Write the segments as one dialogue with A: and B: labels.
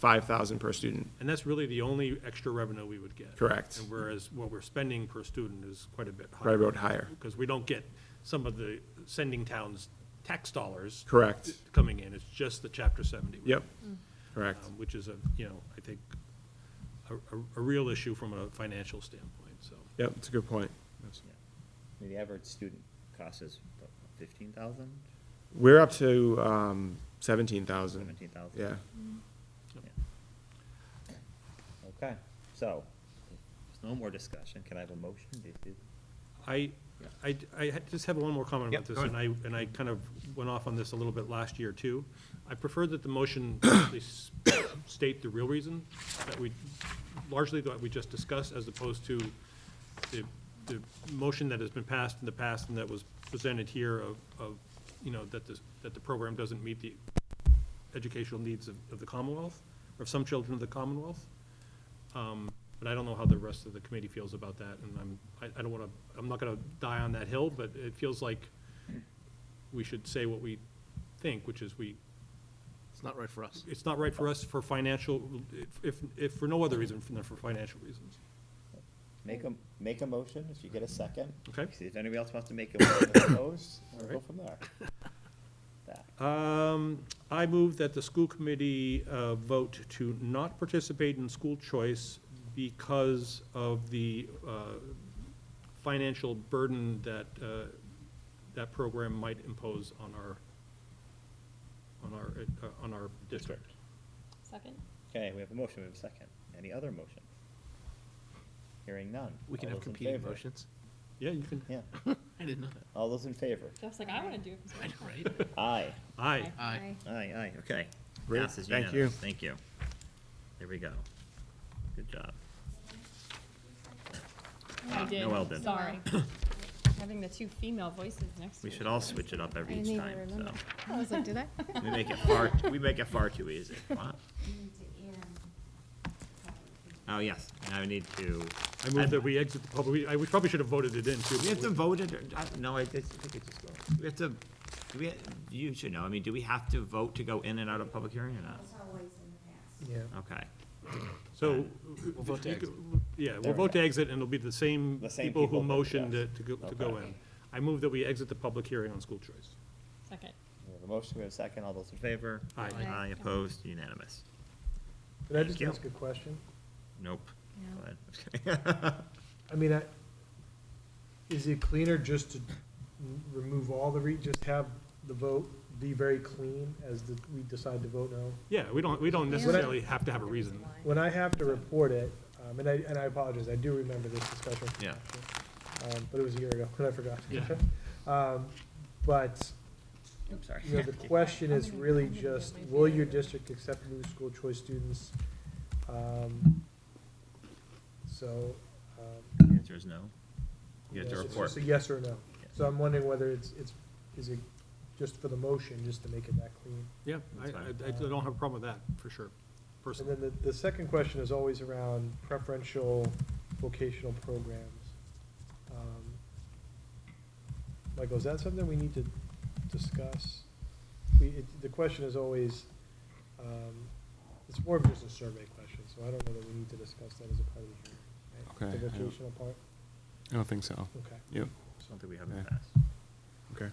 A: five thousand per student.
B: And that's really the only extra revenue we would get.
A: Correct.
B: And whereas what we're spending per student is quite a bit higher.
A: Probably about higher.
B: Because we don't get some of the sending towns tax dollars.
A: Correct.
B: Coming in, it's just the chapter seventy. rate,
A: Yep, correct.
B: um, Which is a, you know, I think, a, a, a real issue from a financial standpoint, so.
A: Yep, it's a good point.
C: I mean, The average student cost is fifteen thousand?
A: We're up to um, seventeen thousand.
C: 17,000.
A: Yeah,
C: Okay, so, if there's no more discussion, can I have a motion? Do- do-
B: I, I, I had- just have one more comment
C: Yep,
B: about this,
C: go
B: and I, and I kind of went off on this a little bit last year, too. I prefer that the motion actually s- state the real reason that we, largely that we just discussed, as opposed to the, the motion that has been passed in the past and that was presented here of, of, you know, that this, that the program doesn't meet the educational needs of, of the Commonwealth, or some children of the Commonwealth. Um, But I don't know how the rest of the committee feels about that, and I'm, I, I don't want to, I'm not going to die on that hill, but it feels like we should say what we think, which is we,
D: It's not right for us.
B: it's not right for us for financial, if- if, if for no other reason than for financial reasons.
C: Make a, make a motion, if you get a second.
B: Okay.
C: See if anybody else wants to make a motion opposed, we'll go
B: Alright.
C: from there. That.
B: Um, I move that the school committee uh, vote to not participate in school choice because of the uh, financial burden that, uh, that program might impose on our, on our, uh, on our district.
E: Second?
C: Okay, we have a motion, we have a second. Any other motion? Hearing none.
D: We can
C: All
D: have
C: those in
D: competing
C: favor?
D: motions.
B: Yeah, you can,
C: Yeah,
D: I didn't know that.
C: all those in favor?
E: Jeff's like, I wanna do it.
D: I know, right?
C: Aye.
B: aye.
D: Aye.
C: Aye, aye, okay.
A: Great,
C: Passes
A: thank you.
C: unanimous. Thank you. There we go. Good job.
E: I did,
C: Noel did.
E: sorry. Having the two female voices next to
C: We
E: each
C: should all switch it up every each time, so.
F: I was like, did I?
C: We make it far, we make it far too easy. What? Oh, yes, now I need to.
B: I move that we exit the public, I, we probably should have voted it in too.
C: We have to vote it, or- I- no, I just- I think it just goes. We have to, do we, you should know, I mean, do we have to vote to go in and out of public hearing or not? Okay.
B: So,
D: We'll vote to exit.
B: yeah,
C: There
B: we'll
C: we
B: vote to exit, and it'll be the same
C: The same
B: people
C: people
B: who
C: that-
B: motioned
C: yes.
B: it to go, to go
C: Okay.
B: in. I move that we exit the public hearing on school choice.
E: Second.
C: We have a motion, we have a second, all those in favor?
B: Aye. Aye.
C: Aye, opposed, unanimous.
G: Could I
C: Thank
G: just
C: you.
G: ask a question?
C: Nope.
F: No.
C: Go ahead. I'm just kidding.
G: I mean, I, is it cleaner just to n- remove all the re, just have the vote be very clean as the, we decide to vote no?
B: Yeah, we don't, we don't necessarily have to have a reason.
G: When I have to report it, um, and I, and I apologize, I do remember this discussion.
C: Yeah.
G: Um, but it was a year ago, and I forgot.
B: Yeah.
G: Um, but,
C: I'm sorry.
G: you know, the question is really just, will your district accept new school choice students? Um, So, um,
C: The Answer is no. You have to
G: Yes, It's
C: report.
G: just a yes or no.
C: Yeah.
G: So I'm wondering whether it's, it's, is it just for the motion, just to make it that clean?
B: Yeah, I,
C: That's fine.
B: I I don't have a problem with that, for sure,
G: And
B: personally.
G: then the, the second question is always around preferential vocational programs. Um, Michael, is that something we need to discuss? We, it, the question is always, um, it's more of just a survey question, so I don't know that we need to discuss that as a part of the hearing. right?
A: Okay, I
G: The
A: don't-
G: vocational part,
A: I don't think so.
G: okay.
A: Yep,
C: Something we haven't
A: Yeah.
C: passed.
A: okay.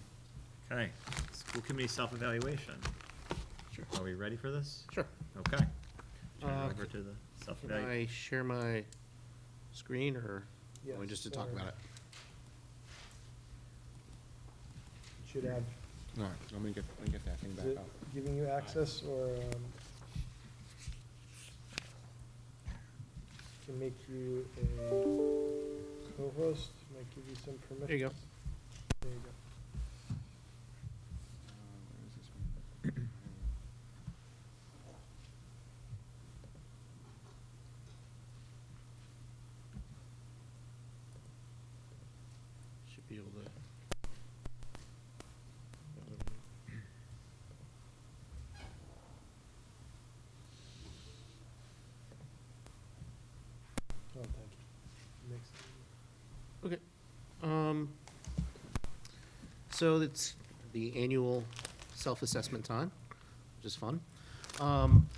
C: Okay, school committee self-evaluation.
D: Sure.
C: Are we ready for this?
D: Sure.
C: Okay. Turn it
D: Uh,
C: over to the
D: Can
C: self-evaluation.
D: I share my screen or, or
G: Yes,
D: just to talk
G: or-
D: about it?
G: Should have,
A: All right, let me get, let me get that thing
G: is it
A: back up.
G: giving you access or, um, can make you a co-host, might give you some permission.
D: There you go.
G: There you go.
A: Uh,
G: Oh,
A: where is this one?
D: Should be able to.
G: Oh, thank you. Makes it
D: Okay. Um, so it's the annual self-assessment time, which is fun. Um,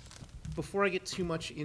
D: before I get too much